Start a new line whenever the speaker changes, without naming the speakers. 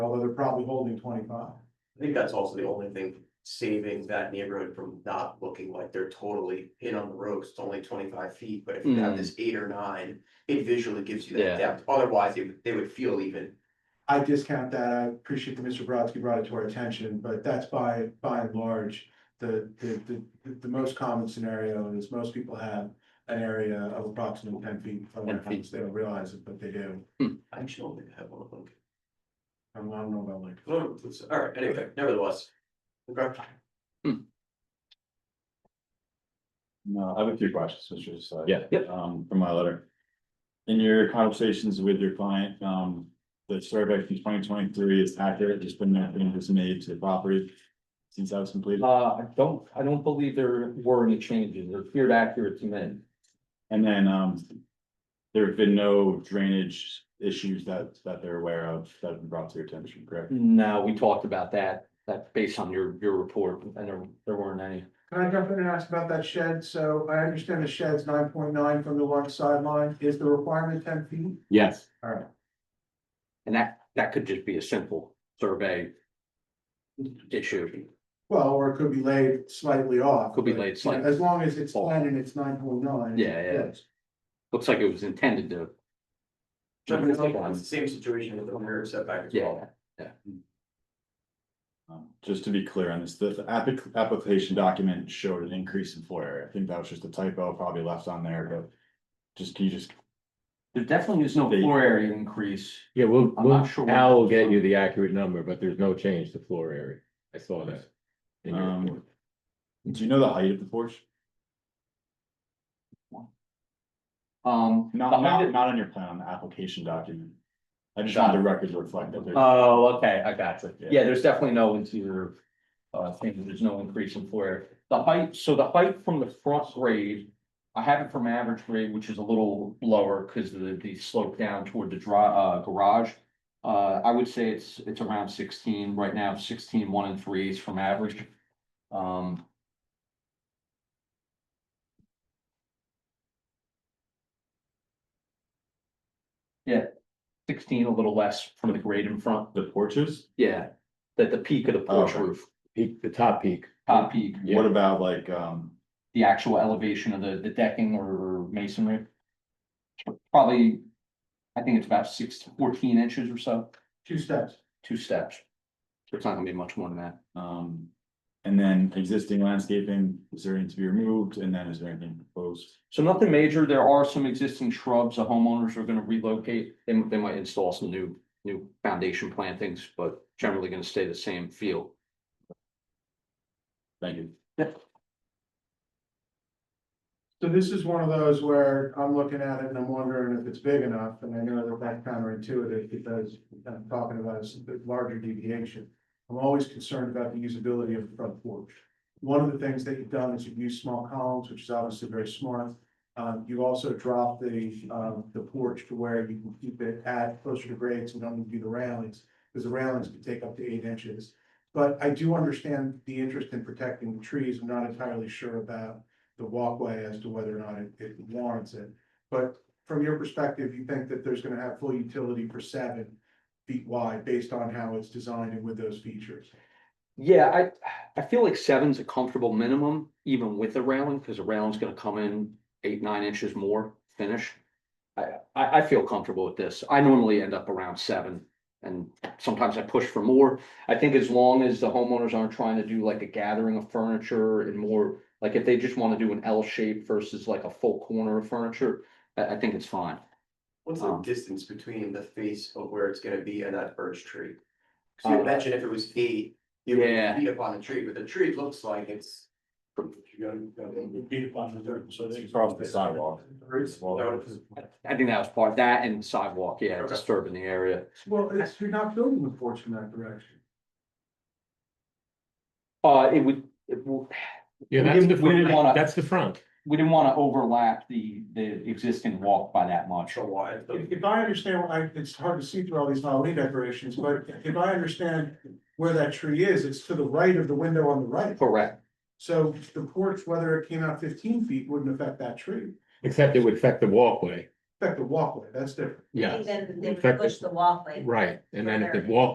they're probably holding twenty-five.
I think that's also the only thing saving that neighborhood from not looking like they're totally in on the road, 'cause it's only twenty-five feet, but if you have this eight or nine, it visually gives you
Mm.
that
Yeah.
depth, otherwise they would, they would feel even.
I discount that. I appreciate that Mr. Brodsky brought it to our attention, but that's by, by and large, the, the, the, the most common scenario is most people have an area of approximately ten feet from their
10 feet.
house. They don't realize it, but they do.
I actually don't think I have one of them.
I don't know about like,
Well, it's- All right, anyway, nevertheless. Okay.
No, I have a few questions, Mr. Side.
Yeah.
Um, from my letter. In your conversations with your client, um, the survey from twenty twenty-three is accurate, there's been nothing that's made to the property since that was completed.
Uh, I don't, I don't believe there were any changes. It appeared accurate to me.
And then, um, there have been no drainage issues that, that they're aware of that have been brought to your attention, correct?
No, we talked about that, that based on your, your report, and there, there weren't any.
can I jump in and ask about that shed? So I understand the shed's nine point nine from the one sideline. Is the requirement ten feet?
Yes.
All right.
And that, that could just be a simple survey issue.
Well, or it could be laid slightly off.
Could be
but,
laid
you know,
slightly
As long as it's
off.
ten and it's nine point nine.
Yeah, yeah. Looks like it was intended to.
Jeff, It's like- it's the same situation with the rear setback as well.
Yeah,
Um, just to be clear on this, the, the applic- application document showed an increase in floor area. I think that was just a typo probably left on there, but just, can you just
there definitely is no floor area increase.
Yeah, we'll,
I'm
we'll,
not sure where
Al will
it's
get
from.
you the accurate number, but there's no change to floor area. I saw that. in your
Um,
report.
Do you know the height of the porch?
Um.
Not,
behind
not,
it-
not on your plan, on the application document. I just want the record to reflect that. there's-
Oh, okay, I got you.
Yeah.
Yeah, there's definitely no interior, uh, thing, there's no increase in floor area. The height, so the height from the front grade, I have it from average grade, which is a little lower because the, the slope down toward the dri- uh, garage. Uh, I would say it's, it's around sixteen, right now 16, one and three is from average. Um. Yeah, sixteen, a little less from the grade in front.
The porches,
Yeah, that the peak of the porch
Okay.
roof,
Peak, the top peak,
top peak,
Yeah.
what about like, um,
the actual elevation of the, the decking or masonry. Probably, I think it's about six to fourteen inches or so,
Two steps.
two steps. It's not gonna be much more than that.
um, and then existing landscaping, is there anything to be removed, and then is there anything proposed?
So nothing major, there are some existing shrubs, the homeowners are gonna relocate, they, they might install some new, new foundation plantings, but generally gonna stay the same feel.
Thank you.
So this is one of those where I'm looking at it and I'm wondering if it's big enough, and I know that that's counterintuitive because I'm talking about a s- a larger deviation. I'm always concerned about the usability of the front porch. One of the things that you've done is you've used small columns, which is obviously very smart. Um, you also dropped the, um, the porch to where you can keep it at closer to grades and don't need to do the railings, because the railings can take up to eight inches. But I do understand the interest in protecting the trees. I'm not entirely sure about the walkway as to whether or not it, it warrants it. But from your perspective, you think that there's gonna have full utility for seven feet wide based on how it's designed and with those features?
Yeah, I, I feel like seven's a comfortable minimum, even with the railing, because the railing's gonna come in eight, nine inches more finish. I, I, I feel comfortable with this. I normally end up around seven, and sometimes I push for more. I think as long as the homeowners aren't trying to do like a gathering of furniture and more, like if they just want to do an L shape versus like a full corner of furniture, I, I think it's fine.
What's the
Um,
distance between the face of where it's gonna be and that birch tree? So
Uh,
you imagine if it was eight, you
yeah.
would be upon a tree, but the tree looks like it's.
Across the sidewalk.
No.
I think that was part, that and sidewalk, yeah,
Okay.
disturbing the area.
Well, it's, you're not building the porch in that direction.
Uh, it would, it would,
yeah,
We
that's the,
didn't- we didn't wanna-
front- that's the front.
we didn't want to overlap the, the existing walk by that much.
So why?
If if I understand, I, it's hard to see through all these Halloween decorations, but if I understand where that tree is, it's to the right of the window on the right.
Correct.
So the porch, whether it came out fifteen feet, wouldn't affect that tree,
Except it would affect the walkway.
affect the walkway, that's different.
Yeah,
Then they
In fact,
would push the walkway.
right. And then if the
Right.
walk,